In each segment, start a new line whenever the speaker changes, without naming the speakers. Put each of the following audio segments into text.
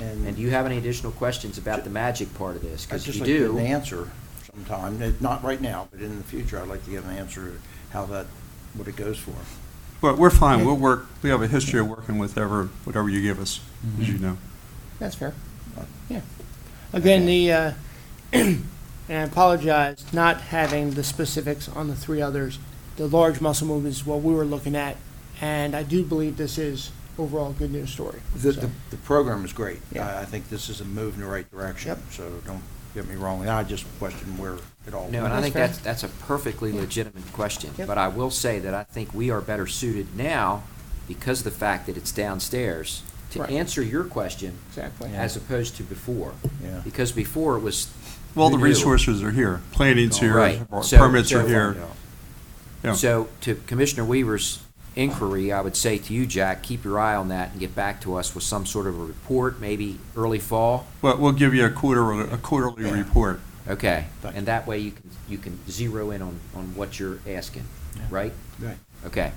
And-
And do you have any additional questions about the magic part of this?
I'd
Because if
just
you
like to get an
do,
answer sometime, eh, not right now, but in the future, I'd like to get an answer of how that, what it goes for.
But we're fine, we'll work, we have a history of working with whatever, whatever you give us, as
Mm-hmm.
you know.
That's fair. Yeah. Again, the, uh, and I apologize, not having the specifics on the three others. The large muscle movement is what we were looking at, and I do believe this is overall a good news story.
The,
So,
the, the program is great.
Yeah.
I, I think this is a move in the right direction,
Yep.
so don't get me wrong. And I just question where it all.
no, and I
That's
think
fair.
that's, that's a perfectly legitimate question.
Yep.
But I will say that I think we are better suited now because of the fact that it's downstairs to
Right.
answer your question
Exactly.
as opposed to before.
Yeah.
Because before it was.
Well, the
who knew?
resources are here, planning's
Right.
here,
So-
permits
so-
are here. Yeah.
So to Commissioner Weaver's inquiry, I would say to you, Jack, keep your eye on that and get back to us with some sort of a report, maybe early fall.
Well, we'll give you a quarter, a quarterly report.
Okay,
Thank you.
and that way you can, you can zero in on, on what you're asking,
Yeah.
right?
Right.
Okay.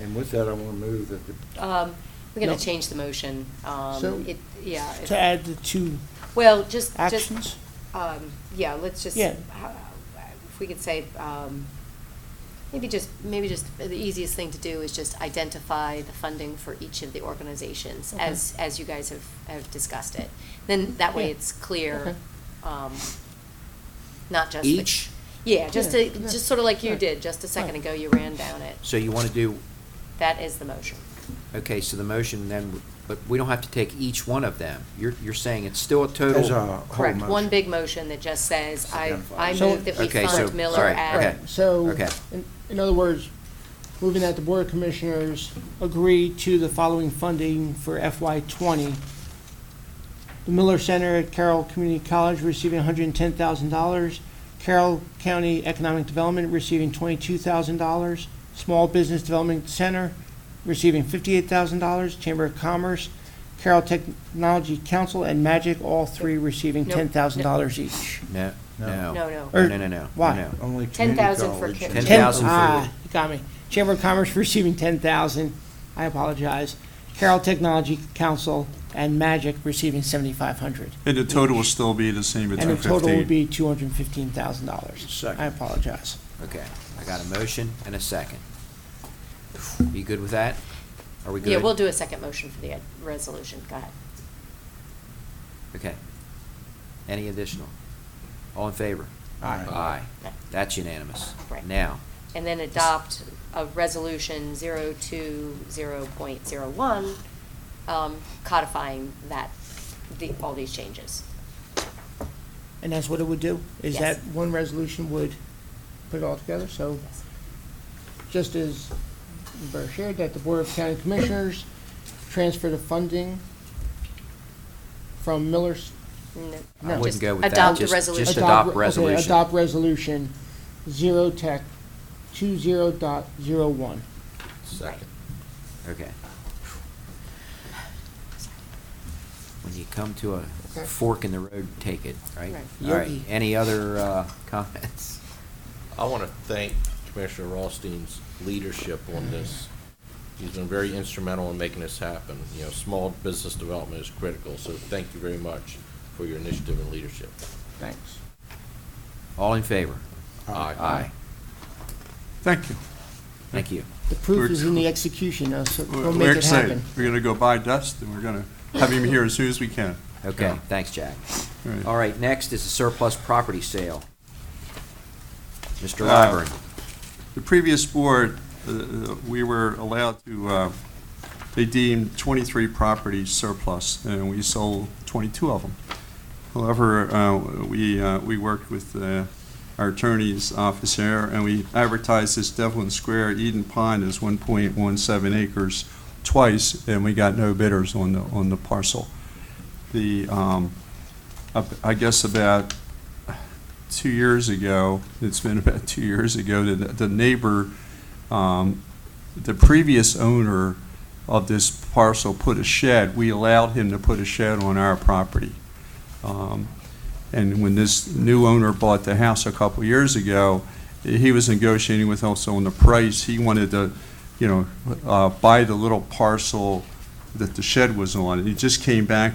And with that, I want to move that the
Um, We're
No.
going to change the motion. Um,
So-
it- Yeah. it-
To add the two
Well, just, just,
actions?
um, yeah, let's just,
Yeah.
how- if we could say, um, maybe just, maybe just, the easiest thing to do is just identify the funding for each of the organizations
Okay.
as, as you guys have, have discussed it. Then that way
Yeah.
it's clear,
Okay.
um, not just. the-
Each?
Yeah, just,
Yeah,
to-
yeah.
just sort of like you
Right.
did, just a second
Right.
ago, you ran down it.
So you want to do,
That is the motion.
okay, so the motion then, but we don't have to take each one of them. You're, you're saying it's still a total.
As a whole
Correct, one
motion.
big motion that just says, I, I
Identifies.
So-
move that we
Okay, so-
fund Miller
sorry,
at.
okay.
So,
Okay.
in- in other words, moving that the Board of Commissioners agree to the following funding for FY '20. The Miller Center at Carroll Community College receiving $110,000. Carroll County Economic Development receiving $22,000. Small Business Development Center receiving $58,000. Chamber of Commerce, Carroll Technology Council, and Magic, all three receiving
Nope, nope.
$10,000 each.
No,
No.
no.
Er,
No, no.
No, no, no, no.
Why?
no.
only community
10,000 for
college.
kids.
10,000 for-
Ah, you got me. Chamber of Commerce receiving ten thousand, I apologize. Carroll Technology Council and Magic receiving seventy-five hundred.
And the total will still be the same at
And the total would
215.
be two hundred and fifteen thousand dollars.
Second.
I apologize.
Okay, I got a motion and a second. You good with that? Are we good?
Yeah, we'll do a second motion for the ed- resolution, go ahead.
Okay. Any additional? All in favor?
Aye.
Aye. That's unanimous.
Right.
Now,
And then adopt a resolution 020.01, um, codifying that, the, all these changes.
And that's what it would do, is
Yes.
that one resolution would put it all together, so
Yes.
just as Burr shared, that the Board of County Commissioners transfer the funding from Miller's
No,
No.
I wouldn't
just
go with that.
Adopt the
Just- Just
resolution.
adopt
okay,
resolution.
Adopt resolution, zero tech, two zero dot zero one.
Second.
Okay. When you come to a
Okay.
fork in the road, take it, right?
Right.
All right,
Yogi.
any other uh, comments?
I want to thank Commissioner Rothstein's leadership on this. He's been very instrumental in making this happen. You know, small business development is critical, so thank you very much for your initiative and leadership.
Thanks.
All in favor?
Aye.
Aye.
Thank you.
Thank you.
The proof
We're-
is in the execution, uh, so
We're-
we'll
We're
make it
excited.
happen.
We're going to go buy dust, and we're going to have him here as soon as we can.
Okay,
Yeah.
thanks, Jack.
All right.
All right, next is the surplus property sale. Mr.
Uh,
Lyburn,
The previous board, uh, we were allowed to, uh, they deemed 23 properties surplus, and we sold 22 of them. However, uh, we, uh, we worked with uh, our attorney's office here, and we advertised this Devlin Square Eden Pond as 1.17 acres twice, and we got no bidders on the, on the parcel. The, um, I I guess about two years ago, it's been about two years ago, that the neighbor, um, the previous owner of this parcel put a shed, we allowed him to put a shed on our property. Um, And when this new owner bought the house a couple years ago, he was negotiating with us on the price. He wanted to, you know, uh, buy the little parcel that the shed was on. And he just came back